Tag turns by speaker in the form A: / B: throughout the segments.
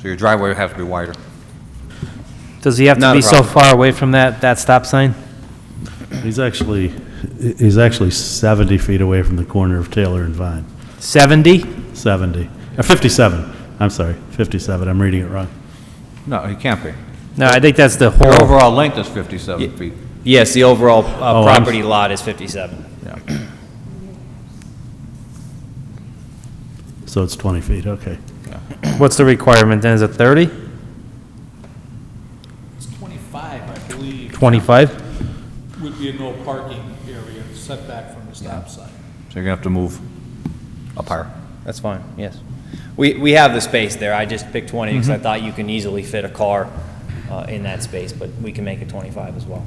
A: So your driveway would have to be wider.
B: Does he have to
A: Not a
B: be so
A: problem.
B: far away from that, that stop sign?
C: He's actually, he's actually 70 feet away from the corner of Taylor and Vine.
B: 70?
C: 70, or 57, I'm sorry, 57, I'm reading it wrong.
A: No, it can't be.
B: No, I think that's the
A: Your
B: whole,
A: overall length is 57 feet.
D: Yes, the overall
C: Oh,
D: uh,
C: I'm s-
D: property lot is 57.
C: So it's 20 feet, okay.
B: what's the requirement then? Is it 30?
E: It's 25, I believe,
B: 25?
E: would be a no parking area setback from the stop sign.
A: So you're gonna have to move up higher.
D: That's fine, yes. Mm-hmm. We, we have the space there. I just picked 20 because I thought you can easily fit a car uh, in that space, but we can make it 25 as well.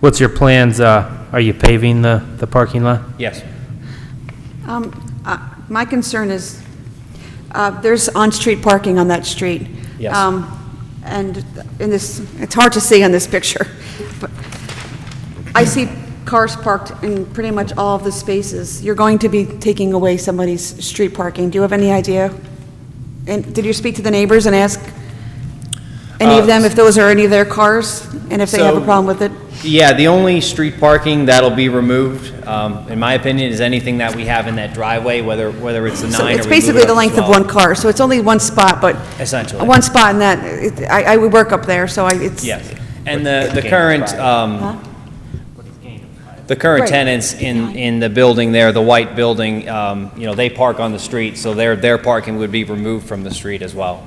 B: What's your plans, uh, are you paving the, the parking lot?
D: Yes.
F: Um, uh, My concern is, uh, there's on-street parking on that street.
D: Yes.
F: Um, And in this, it's hard to see on this picture, but I see cars parked in pretty much all of the spaces. You're going to be taking away somebody's street parking. Do you have any idea? And did you speak to the neighbors and ask any of
D: Uh,
F: them if those are any of their cars, and if they have a
D: So-
F: problem with it?
D: Yeah, the only street parking that'll be removed, um, in my opinion, is anything that we have in that driveway, whether, whether it's the
F: So
D: nine or we move it
F: It's basically
D: up
F: the
D: to
F: length of
D: 12.
F: one car, so it's only one spot, but...
D: Essentially.
F: One spot in that, it- I, I would work up there, so I, it's...
D: Yes. And the, the current, um, the current
F: Right.
D: tenants in, in the building there, the white building, um, you know, they park on the street, so their, their parking would be removed from the street as well.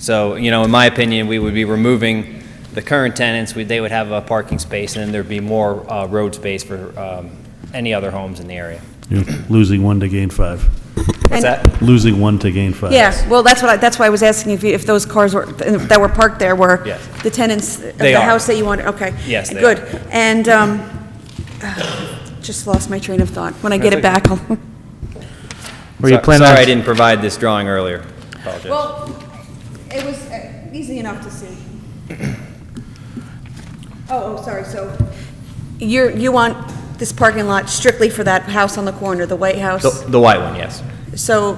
D: So, you know, in my opinion, we would be removing the current tenants, we, they would have a parking space, and then there'd be more, uh, road space for, um, any other homes in the area.
C: You're losing one to gain five,
D: What's
F: And-
D: that?
C: losing one to gain five.
F: Yeah, well, that's what I, that's why I was asking if, you- if those cars were, that were parked there were
D: Yes.
F: the tenants of
D: They
F: the
D: are.
F: house that you wanted, okay.
D: Yes, they
F: Good,
D: are.
F: and, um, just lost my train of thought. When I get it back, I'll...
B: Were you
D: So-
B: planning
D: Sorry, I
B: on,
D: didn't provide this drawing earlier. Apologize.
F: Well, it was uh, easy enough to see. Oh, oh, sorry, so you're, you want this parking lot strictly for that house on the corner, the White
D: The,
F: House?
D: the white one, yes.
F: So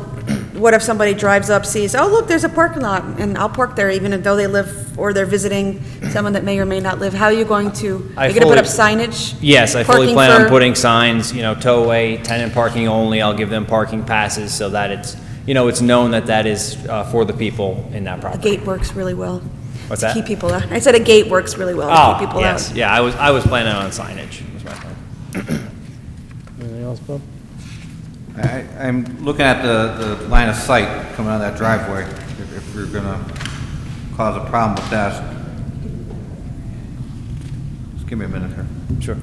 F: what if somebody drives up, sees, oh, look, there's a parking lot, and I'll park there even though they live, or they're visiting someone that may or may not live? How are you going to,
D: I
F: you're going to
D: fully-
F: put up signage?
D: Yes, I fully
F: Parking
D: plan on
F: for-
D: putting signs, you know, tow away, tenant parking only, I'll give them parking passes so that it's, you know, it's known that that is uh, for the people in that
F: A
D: property.
F: gate works really well.
D: What's
F: To
D: that?
F: keep people out. I said a gate works really well to keep
D: Oh,
F: people out.
D: yes, yeah, I was, I was planning on signage, was my plan.
A: I- I'm looking at the the line of sight coming out of that driveway, if if you're gonna cause a problem with that. Just give me a minute here.
D: Sure.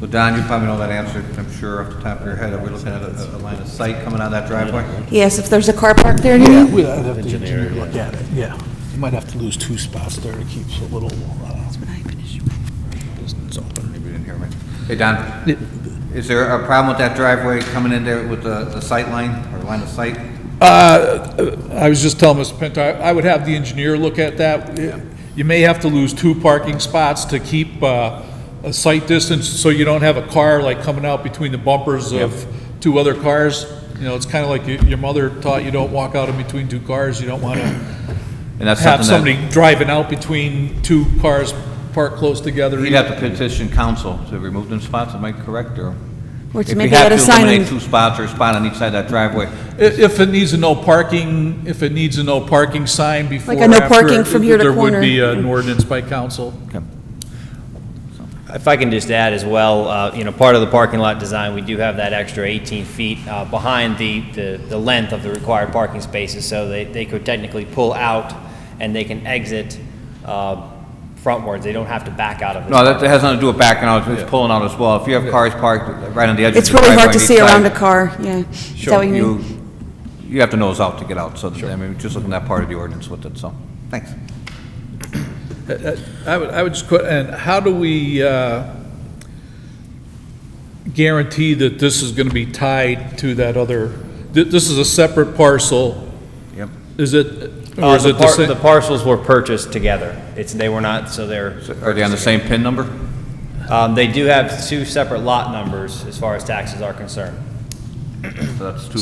A: So Don, you probably know that answer, I'm sure, off the top of your head. Are we looking at a a line of sight coming out of that driveway?
F: Yes, if there's a car parked there, you mean?
G: Yeah, we'd I'd have to engineer look at it, yeah. You might have to lose two spots there to keep a little, uh, distance open.
A: Maybe you didn't hear me. Hey, Don, is there a problem with that driveway coming in there with the the sight line or line of sight?
G: Uh, I was just telling Mr. Pinto, I I would have the engineer look at that. You may have to lose two parking spots to keep uh, a sight distance, so you don't have a car like coming out between the bumpers of two other cars. You know, it's kind of like your your mother taught you don't walk out in between two cars. You don't want to
A: And that's
G: have
A: something
G: somebody
A: that
G: driving out between two cars parked close together.
A: You'd have to petition council to remove them spots, am I correct, or?
F: Or to maybe add
A: If you have
F: a sign
A: to
F: on-
A: eliminate two spots or a spot on each side of that driveway,
G: I- If it needs a no parking, if it needs a no parking sign before.
F: Like a no
G: or after,
F: parking from here to corner.
G: There would be an ordinance by council.
D: If I can just add as well, uh, you know, part of the parking lot design, we do have that extra 18 feet uh, behind the, the the length of the required parking spaces, so they, they could technically pull out and they can exit uh, frontwards, they don't have to back out of the
A: No, that that has nothing to do with backing out, it's pulling out as well. If you have cars parked right on the edge of
F: It's
A: the
F: really
A: driveway.
F: hard to
A: on each
F: see around a
A: side,
F: car, yeah. Is that what you mean?
A: You, you have to nose out to get out, so, I mean, just looking at that part of the ordinance with it, so, thanks.
G: I would, I would just, que- and how do we uh, guarantee that this is going to be tied to that other, th- this is a separate parcel?
A: Yep.
G: Is it,
D: Uh,
G: or is
D: the
G: it the
D: par-
G: same?
D: The parcels were purchased together. It's, they were not, so they're,
A: Are they on the same PIN number?
D: um, they do have two separate lot numbers as far as taxes are concerned.
A: So that's two